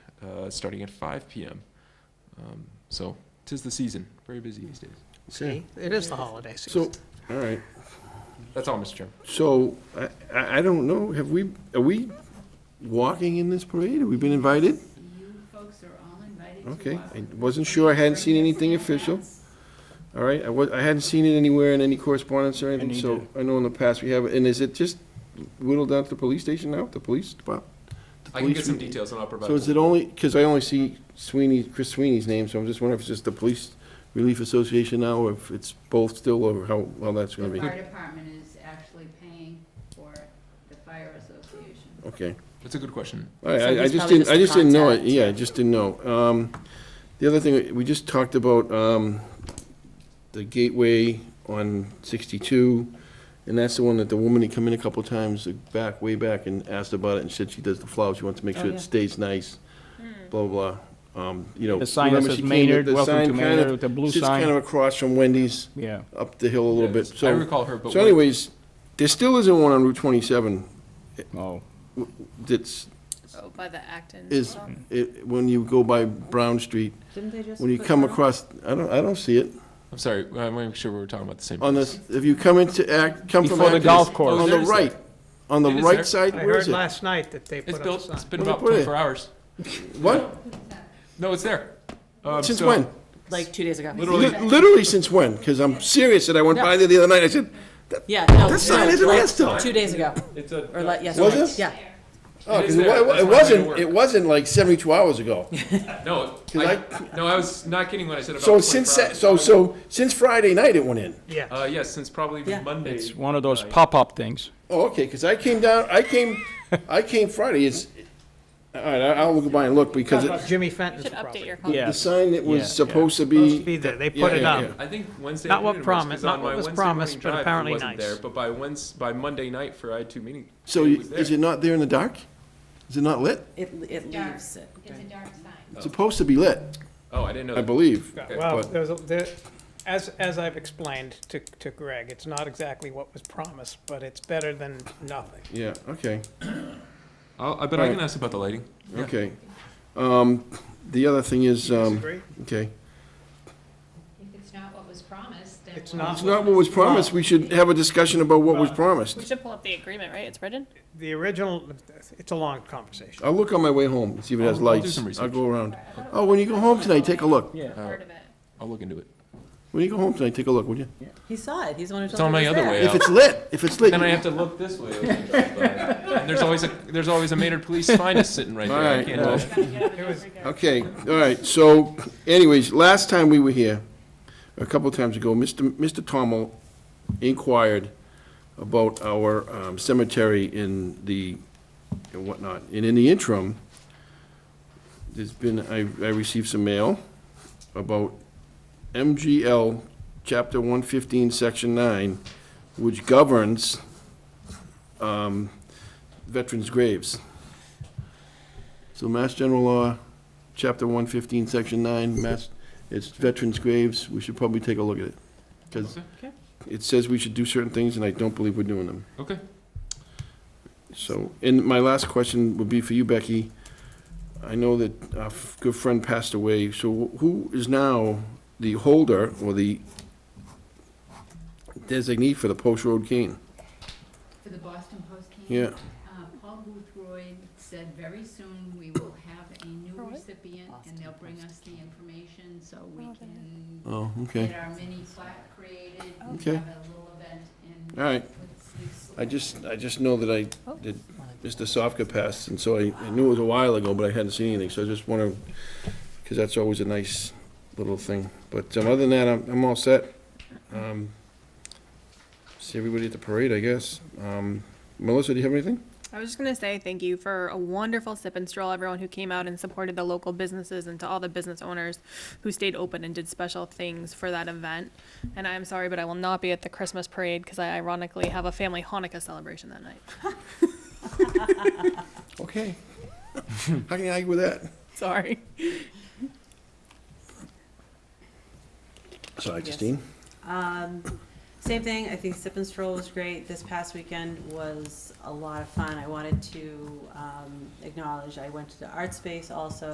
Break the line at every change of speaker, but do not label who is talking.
uh, starting at 5 p.m. Um, so, tis the season. Very busy these days.
See, it is the holiday
So,
season.
all right,
That's all, Mr. Chairman.
so, I, I I don't know, have we, are we walking in this parade? Have we been invited?
You folks are all invited to walk.
Okay, I wasn't sure, I hadn't seen anything official. All right, I wa, I hadn't seen it anywhere in any correspondence or anything, so I know in the past we have, and is it just whittled down to the police station now, the police department?
I can get some
Police-
details and I'll provide.
So is it only, because I only see Sweeney, Chris Sweeney's name, so I'm just wondering if it's just the Police Relief Association now, or if it's both still, or how, well, that's gonna
The
be.
fire department is actually paying for the fire association.
Okay,
That's a good question.
all right, I- I
Somebody's
just
probably
didn't, I
just
just didn't know, it.
contact.
yeah, I just didn't know. Um, The other thing, we just talked about um, the gateway on 62, and that's the one that the woman had come in a couple times back, way back, and asked about it, and said she does the flowers, she wants to make
Oh,
sure
yeah. Hmm.
it stays nice, blah, blah, blah. Um, You know.
The sign that
remember
says
she came in-
Maynard,
the
welcome
sign
to
kind of-
Maynard, with the blue
Sits kind of
sign,
across from Wendy's,
yeah.
up the hill a little bit,
I
so.
recall her, but.
So
what-
anyways, there still isn't one on Route twenty-seven
Oh,
that's,
Oh, by the Acton.
is,
stuff?
it, when you go by Brown Street,
Didn't they just?
when you
put
come
one up?
across, I don't, I don't see it.
I'm sorry, I want to make sure we were talking about the same.
On this, if you come into Act, come from.
Before the
Acton,
golf
it's
course.
On
Oh,
the
there's
right, on the
It is there.
right side,
I
where
heard
is it?
last night that they
It's
put up a
built,
sign.
it's been
Where they
about
put it?
24 hours.
What?
No, it's there. Um,
Since
so-
when?
Like two days ago.
Literally-
Li- Literally since when? Because I'm serious, that I went by there the other night, I said,
Yeah, no.
This sign
no,
isn't
like,
last time.
Two days ago,
It's a.
or like, yes.
Was
like-
it?
Yeah.
oh,
It is
'cause it
there.
wa- it
That's
wa- it
why I made it
wasn't,
work.
it wasn't like seventy-two hours ago.
No,
I-
I, no, I was not kidding when I said about.
So
24
since,
hours.
that- so, so, since Friday night it went in.
Yeah,
Uh, yes, since probably
Yeah.
Monday.
it's one of those
night.
pop-up things.
Oh, okay, because I came down, I came, I came Friday, it's, all right, I- I'll go by and look, because it-
Jimmy Fenton's
Should update
property.
your.
the
Yes.
sign that
Yeah,
was supposed to
Supposed to
be,
be there, they
Yeah,
put it
yeah,
up.
yeah.
I think Wednesday.
Not what
afternoon it was,
promised-
'cause
not
on
what
my
was
Wednesday
promised,
morning
but
drive, it
apparently
wasn't
nice.
there, But by Wednes, by Monday night for I two meeting.
so
it was
is
there.
it not there in the dark? Is it not lit?
It, it
Dark.
leaves it.
It's a dark sign.
It's supposed to be lit,
Oh, I didn't know.
I
that.
believe.
Yeah,
Okay.
Well,
But-
there's, a- there, as, as I've explained to, to Greg, it's not exactly what was promised, but it's better than nothing.
Yeah, okay,
I'll, I bet I can ask about the lighting. Yeah.
okay. Um, the other thing is, um,
Disagree?
okay,
If it's not what was promised, then.
It's
we'll-
not.
it's not what was promised, we should have a discussion about what was
We
promised.
should pull up the agreement, right? It's written?
The original, it's a long conversation.
I'll look on my way home, see if it has
I'll- I'll do
lights,
some
I'll
research.
go around. Oh, when you go home tonight, take a look,
Part of it.
I'll look into it.
when you go home tonight, take a look, would you?
He saw it. He's the one who told
It's
me.
on
it
my
was
other
there.
way
If
out.
it's lit, if it's lit,
Then I have to look this way. as I drive by. And there's always a, there's always a Maynard Police finest sitting right there. I
Alright,
can't
well.
help it.
Okay, all right, so anyways, last time we were here, a couple of times ago, Mr. Mr. Tommel inquired about our um, cemetery in the, and whatnot, and in the interim, there's been, I, I received some mail about MGL, chapter one fifteen, section nine, which governs, um, veterans' graves. So Mass General Law, Chapter 115, Section 9, Mass, it's veterans' graves, we should probably take a look at it. Because
Okay.
it says we should do certain things, and I don't believe we're doing them.
Okay.
So, and my last question would be for you, Becky. I know that our f- good friend passed away, so who is now the holder or the designee for the Post Road cane?
For the Boston Post came.
Yeah,
Uh, Paul Boothroyd said very soon we will have a new
For what?
recipient and they'll bring us the information so we
Oh,
can
oh,
get
okay,
our mini plaque created and
Okay.
have a little event in.
all right.
Woods.
I just, I just know that I, that Mr. Sofka passed, and so I I knew it was a while ago, but I hadn't seen anything, so I just want to, because that's always a nice little thing. But um, other than that, I'm, I'm all set. Um, See everybody at the parade, I guess. Um, Melissa, do you have anything?
I was just gonna say thank you for a wonderful sip and stroll, everyone who came out and supported the local businesses and to all the business owners who stayed open and did special things for that event. And I'm sorry, but I will not be at the Christmas parade because I ironically have a family Hanukkah celebration that night.
Okay. How can you argue with that?
Sorry.
Sorry,
Yes.
Justine.
Um, same thing, I think Sip and Stroll was great. This past weekend was a lot of fun. I wanted to, um, acknowledge, I went to the art space also